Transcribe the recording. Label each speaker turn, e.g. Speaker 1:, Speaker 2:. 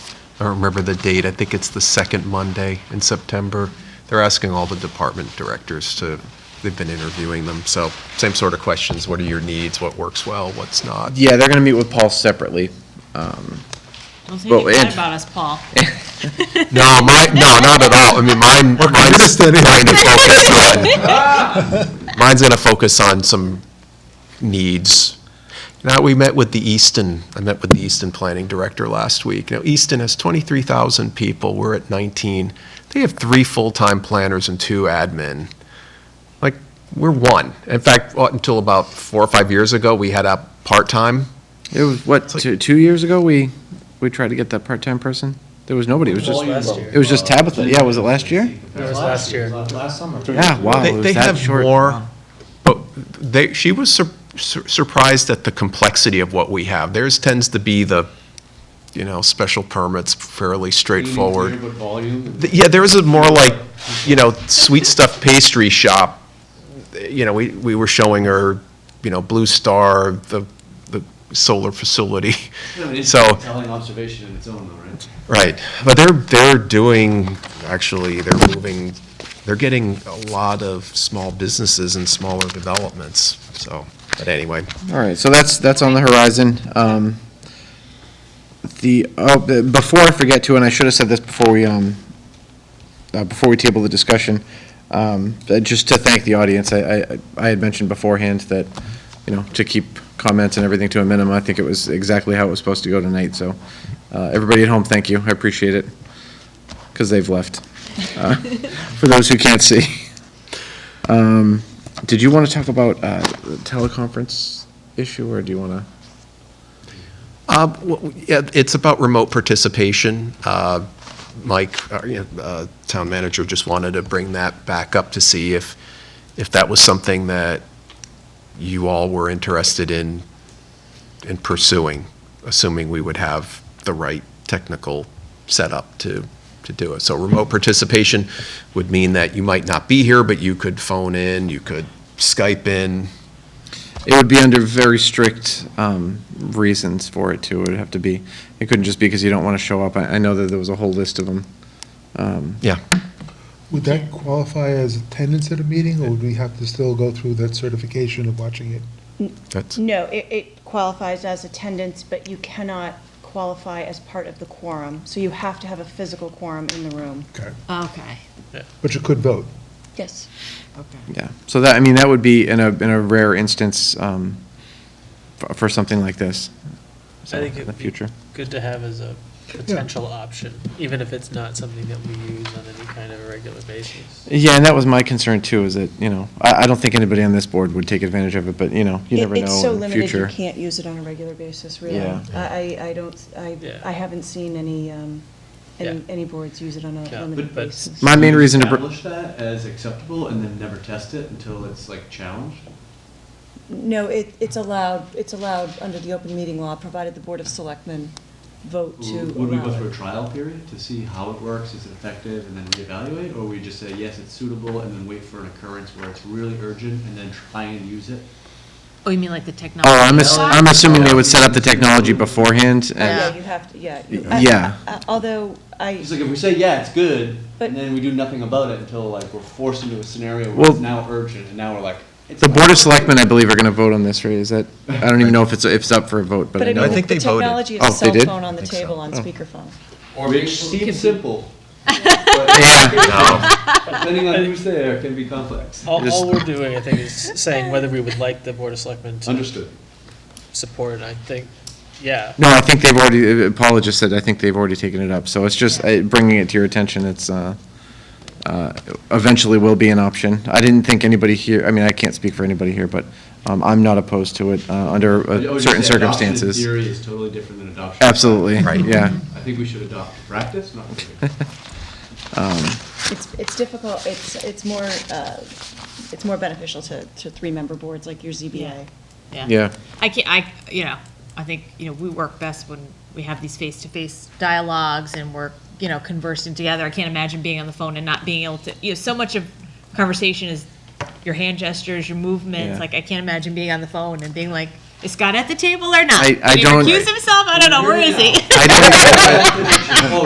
Speaker 1: I don't remember the date, I think it's the second Monday in September. They're asking all the department directors to, they've been interviewing them, so same sort of questions, what are your needs, what works well, what's not?
Speaker 2: Yeah, they're gonna meet with Paul separately.
Speaker 3: Don't say
Speaker 2: But
Speaker 3: anything bad
Speaker 2: it-
Speaker 3: about us, Paul.
Speaker 1: No, my, no, not at all, I mean, mine, mine's going to focus on, mine's going to focus on some needs. Now, we met with the Easton, I met with the Easton Planning Director last week. Now, Easton has 23,000 people, we're at 19. They have three full-time planners and two admin. Like, we're one. In fact, uh, until about four or five years ago, we had a part-time.
Speaker 2: It was, what, two, two years ago, we, we tried to get that part-time person? There was nobody, it was just, it was just Tabitha, yeah, was it last year?
Speaker 4: That was last year. Last summer.
Speaker 2: Yeah, wow,
Speaker 1: They
Speaker 2: it
Speaker 1: they
Speaker 2: was that
Speaker 1: have
Speaker 2: short.
Speaker 1: more, but they, she was sur- sur- surprised at the complexity of what we have. Theirs tends to be the, you know, special permits, fairly
Speaker 4: Mm-hmm.
Speaker 1: straightforward. Th- Yeah, there is a more like, you know, sweet stuff pastry shop. You know, we, we were showing her, you know, Blue Star, the, the solar facility. So,
Speaker 4: Telling observation in its own though, right?
Speaker 1: right, but they're, they're doing, actually, they're moving, they're getting a lot of small businesses and smaller developments, so, but anyway.
Speaker 2: All right, so that's, that's on the horizon. Um, The, oh, the- before I forget to, and I should have said this before we, um, uh, before we table the discussion, um, uh, just to thank the audience, I, I- I had mentioned beforehand that, you know, to keep comments and everything to a minimum, I think it was exactly how it was supposed to go tonight, so, uh, everybody at home, thank you, I appreciate it, because they've left, uh, for those who can't see. Um, Did you want to talk about uh, the teleconference issue, or do you want to?
Speaker 1: Uh, w- w- yeah, It's about remote participation. Uh, Mike, uh, you know, uh, town manager, just wanted to bring that back up to see if, if that was something that you all were interested in, in pursuing, assuming we would have the right technical setup to, to do it. So remote participation would mean that you might not be here, but you could phone in, you could Skype in.
Speaker 2: It would be under very strict um, reasons for it, too. It would have to be, it couldn't just be because you don't want to show up. I I know that there was a whole list of them.
Speaker 1: Yeah.
Speaker 5: Would that qualify as attendance at a meeting, or would we have to still go through that certification of watching it?
Speaker 1: That's,
Speaker 6: No, it, it qualifies as attendance, but you cannot qualify as part of the quorum. So you have to have a physical quorum in the room.
Speaker 3: Okay,
Speaker 5: But you could vote.
Speaker 6: Yes.
Speaker 3: okay.
Speaker 2: Yeah, so that, I mean, that would be in a, in a rare instance um, for for something like this.
Speaker 7: I
Speaker 2: So,
Speaker 7: think
Speaker 2: in
Speaker 7: it'd
Speaker 2: the
Speaker 7: be
Speaker 2: future.
Speaker 7: Good to have as a potential option, even if it's not something that we use on any kind of a regular basis.
Speaker 2: Yeah, and that was my concern, too, is that, you know, I I don't think anybody on this board would take advantage of it, but, you know, you
Speaker 6: It-
Speaker 2: never know in the future.
Speaker 6: It's so limited, you can't use it on a regular basis, really.
Speaker 2: Yeah.
Speaker 6: I, I I don't, I,
Speaker 7: Yeah.
Speaker 6: I haven't seen any, um, any,
Speaker 7: Yeah.
Speaker 6: any boards use it on a
Speaker 7: Yeah,
Speaker 6: limited
Speaker 7: but- but-
Speaker 6: basis.
Speaker 2: My main reason to. br-
Speaker 4: Establish that as acceptable and then never test it until it's like challenged?
Speaker 6: No, it, it's allowed, it's allowed under the open meeting law, provided the Board of Selectmen vote to
Speaker 4: Would would we go
Speaker 6: allow
Speaker 4: through a
Speaker 6: it.
Speaker 4: trial period to see how it works, is it effective, and then reevaluate? Or we just say, yes, it's suitable, and then wait for an occurrence where it's really urgent, and then try and use it?
Speaker 3: Oh, you mean like the technology?
Speaker 2: Oh, I'm, ass-
Speaker 3: side?
Speaker 2: I'm assuming they would set up the technology beforehand,
Speaker 6: Yeah,
Speaker 2: and,
Speaker 6: you have to, yeah. you-
Speaker 2: Y- yeah.
Speaker 6: I- I- I- Although I.
Speaker 4: It's like, if we say, yeah, it's good,
Speaker 6: But-
Speaker 4: and then we do nothing about it until like we're forced into a scenario where
Speaker 2: Well-
Speaker 4: it's now urgent, and now we're like, it's.
Speaker 2: the Board
Speaker 4: fine.
Speaker 2: of Selectmen, I believe, are gonna vote on this, right, is that, I don't even know if it's, if it's up for a vote, but I
Speaker 6: mean,
Speaker 2: know.
Speaker 1: I think
Speaker 6: the
Speaker 1: they voted.
Speaker 6: Technology of
Speaker 2: Oh,
Speaker 6: a
Speaker 2: they
Speaker 6: cell
Speaker 2: did?
Speaker 6: phone on the
Speaker 1: think so. Oh.
Speaker 6: table on speakerphone.
Speaker 4: Which seems simple. Depending on who's there, can be complex.
Speaker 7: All,
Speaker 2: Just-
Speaker 7: all we're doing, I think, is saying whether we would like the Board of Selectmen to
Speaker 4: Understood.
Speaker 7: support, it. I think, yeah.
Speaker 2: No, I think they've already, uh, Paula just said, I think they've already taken it up, so it's just uh, bringing it to your attention, it's, uh, uh, eventually will be an option. I didn't think anybody here, I mean, I can't speak for anybody here, but, um, I'm not opposed to it, uh, under
Speaker 4: I would
Speaker 2: uh,
Speaker 4: just
Speaker 2: certain
Speaker 4: say Oh, adoption in
Speaker 2: circumstances.
Speaker 4: Theory is totally different than adoption.
Speaker 2: Absolutely,
Speaker 1: Right.
Speaker 2: yeah.
Speaker 4: I think we should adopt practice, not theory.
Speaker 6: It's, it's difficult, it's, it's more, uh, it's more beneficial to, to three-member boards like your ZBA.
Speaker 2: Yeah.
Speaker 3: I can't, I, you know, I think, you know, we work best when we have these face-to-face dialogues and we're, you know, conversing together. I can't imagine being on the phone and not being able to, you know, so much of conversation is your hand gestures, your
Speaker 2: Yeah.
Speaker 3: movements. Like, I can't imagine being on the phone and being like, is Scott at the table or not?
Speaker 2: I- I
Speaker 3: Did he
Speaker 2: don't-
Speaker 3: recuse himself? I don't know, where is he?
Speaker 2: I didn't expect,